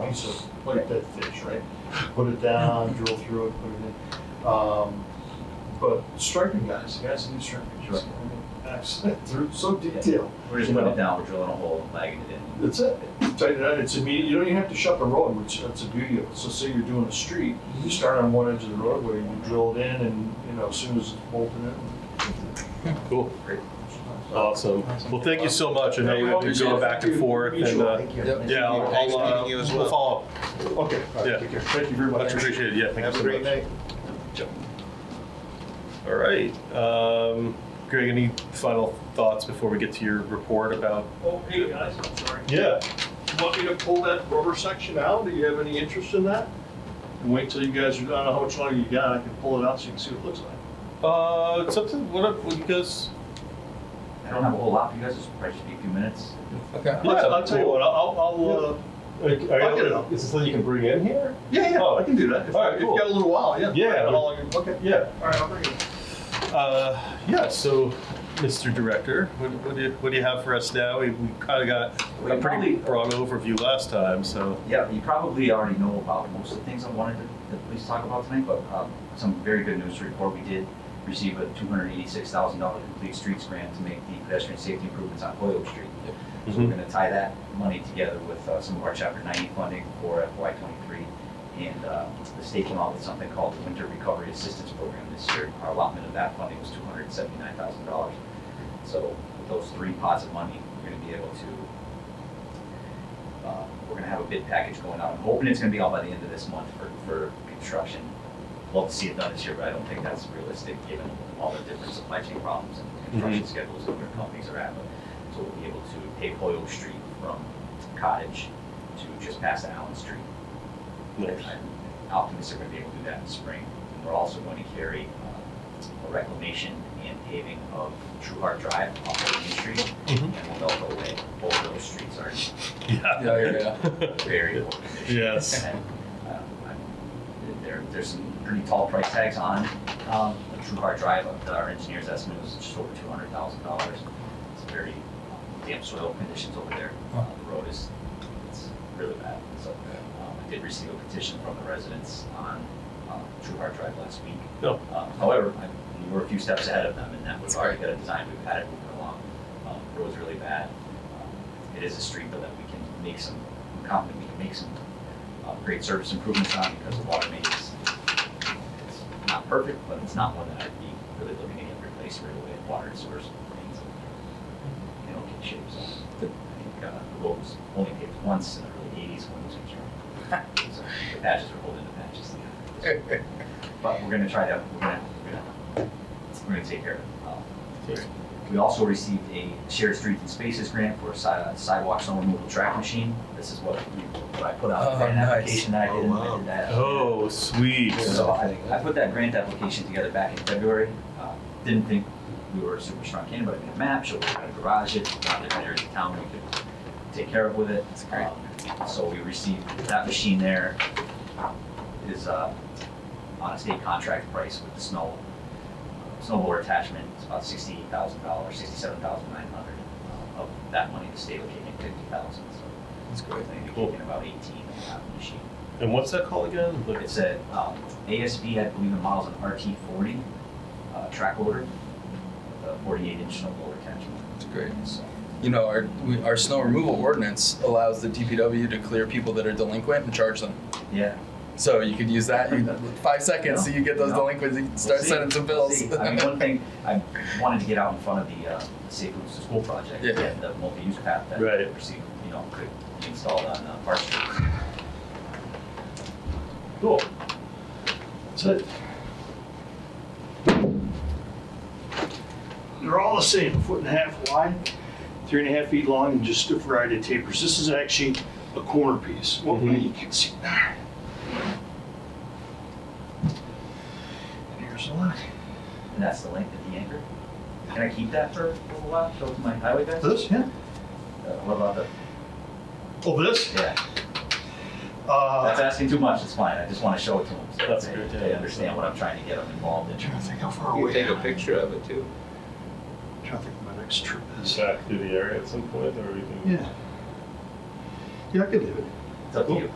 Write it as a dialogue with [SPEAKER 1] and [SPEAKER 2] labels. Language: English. [SPEAKER 1] piece of like dead fish, right? Put it down, drill through it, put it in. Um, but striping guys, the guys that do striping, just, I mean, excellent. They're so detailed.
[SPEAKER 2] We're just putting it down, we're drilling a hole and lagging it in.
[SPEAKER 1] That's it. Tighten it out. It's immediate. You don't even have to shut the road, which that's the beauty of it. So say you're doing a street, you start on one edge of the roadway, you drill it in, and you know as soon as it's bolted in.
[SPEAKER 3] Cool.
[SPEAKER 2] Great.
[SPEAKER 3] Awesome. Well, thank you so much. I know you have been going back and forth and, uh,
[SPEAKER 1] Thank you.
[SPEAKER 3] yeah, I'll, I'll, uh, we'll follow up.
[SPEAKER 1] Okay. all right,
[SPEAKER 3] Yeah.
[SPEAKER 1] take care. Thank you very much.
[SPEAKER 3] Much appreciated. Yeah, thank you
[SPEAKER 1] Have a
[SPEAKER 3] so
[SPEAKER 1] great
[SPEAKER 3] much.
[SPEAKER 1] night.
[SPEAKER 3] All right. Um, Greg, any final thoughts before we get to your report about?
[SPEAKER 1] Oh, hey guys, I'm sorry.
[SPEAKER 3] Yeah.
[SPEAKER 1] Want me to pull that rubber section out? Do you have any interest in that? And wait till you guys, are- I don't know how much longer you got. I can pull it out so you can see what it looks like.
[SPEAKER 3] Uh, it's up to, what up, what you guys?
[SPEAKER 2] I don't have a whole lot for you guys, it's probably just be a few minutes.
[SPEAKER 4] Okay.
[SPEAKER 3] Yeah,
[SPEAKER 1] I'll- I'll tell you
[SPEAKER 3] cool.
[SPEAKER 1] what, I'll, I'll, uh, I'll get it up.
[SPEAKER 3] Is this something you can bring in here?
[SPEAKER 1] Yeah, yeah, oh, I can do that. If,
[SPEAKER 3] All right,
[SPEAKER 1] if you
[SPEAKER 3] cool.
[SPEAKER 1] got a little while, yeah.
[SPEAKER 3] Yeah.
[SPEAKER 1] How long- okay.
[SPEAKER 3] Yeah.
[SPEAKER 1] All right, I'll bring it.
[SPEAKER 3] Uh, yeah, so, Mr. Director, what, what do you, what do you have for us now? We, we kinda got a pretty
[SPEAKER 2] Probably-
[SPEAKER 3] broad overview last time, so.
[SPEAKER 2] Yeah, you probably already know about most of the things I wanted to at least talk about tonight, but um, some very good news to report. We did receive a $286,000 complete streets grant to make the pedestrian safety improvements on Hoyle Street. So we're gonna tie that money together with uh, some of our chapter ninety funding for FY twenty-three. And uh, the state came out with something called the Winter Recovery Assistance Program this year. Our allotment of that funding was two hundred and seventy-nine thousand dollars. So with those three pots of money, we're gonna be able to, uh, we're gonna have a bid package going out. I'm hoping it's gonna be all by the end of this month for, for construction. Love to see it done this year, but I don't think that's realistic, given all the different supply chain problems and construction schedules that their companies are at. But so we'll be able to pave Hoyle Street from Cottage to just past Allen Street.
[SPEAKER 3] Nice.
[SPEAKER 2] I'm optimistic we're gonna be able to do that in spring. And We're also going to carry uh, a reclamation and paving of True Heart Drive off of Main Street
[SPEAKER 3] Mhm.
[SPEAKER 2] and Winoka Way. Both of those streets are
[SPEAKER 4] Yeah, yeah,
[SPEAKER 2] very important.
[SPEAKER 3] Yes.
[SPEAKER 2] And, uh, I'm- There, there's some pretty tall price tags on, um, a true hard drive, uh, our engineer's estimate was just over two hundred thousand dollars. It's very um, damp soil conditions over there, Uh, the road is, it's really bad, so, um, I did receive a petition from the residents on, uh, true hard drive last week.
[SPEAKER 3] No.
[SPEAKER 2] Uh, however, I, we were a few steps ahead of them, and that was already got a design, we've had it moving along, um, road's really bad. Um, It is a street though that we can make some, I'm confident we can make some uh, great service improvements on because the water main is, it's not perfect, but it's not one that I'd be really looking to get replaced right away. Water and sewer mains in there, in okay shape, so I think uh, the road was only paved once in the early eighties when it was constructed. So The patches are holding the patches together. But we're gonna try to, we're gonna, we're gonna, we're gonna take care of it. Um, we also received a shared streets and spaces grant for a si- uh, sidewalk snow removal track machine. This is what we, what I put out,
[SPEAKER 4] Oh,
[SPEAKER 2] an
[SPEAKER 4] nice.
[SPEAKER 2] application that I did, and I did that.
[SPEAKER 3] Oh, sweet.
[SPEAKER 2] So I, I put that grant application together back in February. Uh, Didn't think we were a super strong candidate, but I made a map, showed how to garage it, found different areas of town we could take care of with it. That's
[SPEAKER 4] great.
[SPEAKER 2] So we received that machine there is uh, on a state contract price with the snow, snowboard attachment, it's about sixty-eight thousand dollars, sixty-seven thousand nine hundred. uh, Of that money, the state will kick in fifty thousand, so
[SPEAKER 4] That's
[SPEAKER 2] I
[SPEAKER 4] great.
[SPEAKER 2] think they
[SPEAKER 3] Cool.
[SPEAKER 2] kick in about eighteen on that machine.
[SPEAKER 3] And what's that called again? Like-
[SPEAKER 2] It's a um, ASB, I believe the model's an RT40 uh, track loader, with a 48 inch snow blower attachment.
[SPEAKER 4] That's great.
[SPEAKER 2] So,
[SPEAKER 4] You know, our we, our snow removal ordinance allows the DPW to clear people that are delinquent and charge them.
[SPEAKER 2] yeah.
[SPEAKER 4] So you could use that you, five seconds, so you get those
[SPEAKER 2] No.
[SPEAKER 4] delinquents, you can
[SPEAKER 2] we'll
[SPEAKER 4] start
[SPEAKER 2] see.
[SPEAKER 4] sending some
[SPEAKER 2] We'll
[SPEAKER 4] bills.
[SPEAKER 2] see. I mean, one thing, I wanted to get out in front of the uh, Safe Routes to School project,
[SPEAKER 4] Yeah.
[SPEAKER 2] and the multi-use path that
[SPEAKER 3] Right.
[SPEAKER 2] we're seeing, you know, could be installed on uh, Park Street.
[SPEAKER 3] Cool.
[SPEAKER 1] That's it. They're all the same, a foot and a half wide, three and a half feet long, and just a variety of tapers. This is actually a corner piece. Well,
[SPEAKER 3] Mhm.
[SPEAKER 1] you can see. And here's the line.
[SPEAKER 2] And that's the length of the anchor. Can I keep that for a little while, show it to my highway guys? Uh,
[SPEAKER 1] This, yeah.
[SPEAKER 2] What about the,
[SPEAKER 1] Oh, this?
[SPEAKER 2] yeah, that's
[SPEAKER 1] Uh,
[SPEAKER 2] asking too much, it's fine, I just want to show it to them, so
[SPEAKER 3] That's
[SPEAKER 2] they-
[SPEAKER 3] a good
[SPEAKER 2] they
[SPEAKER 3] idea.
[SPEAKER 2] understand what I'm trying to get them involved in.
[SPEAKER 1] trying to think how far
[SPEAKER 5] You
[SPEAKER 1] away.
[SPEAKER 5] take a picture of it too.
[SPEAKER 1] Trying to think of my next trip is.
[SPEAKER 3] Track through the area at some point or we can-
[SPEAKER 1] Yeah. Yeah, I could live it.
[SPEAKER 2] It's up to you.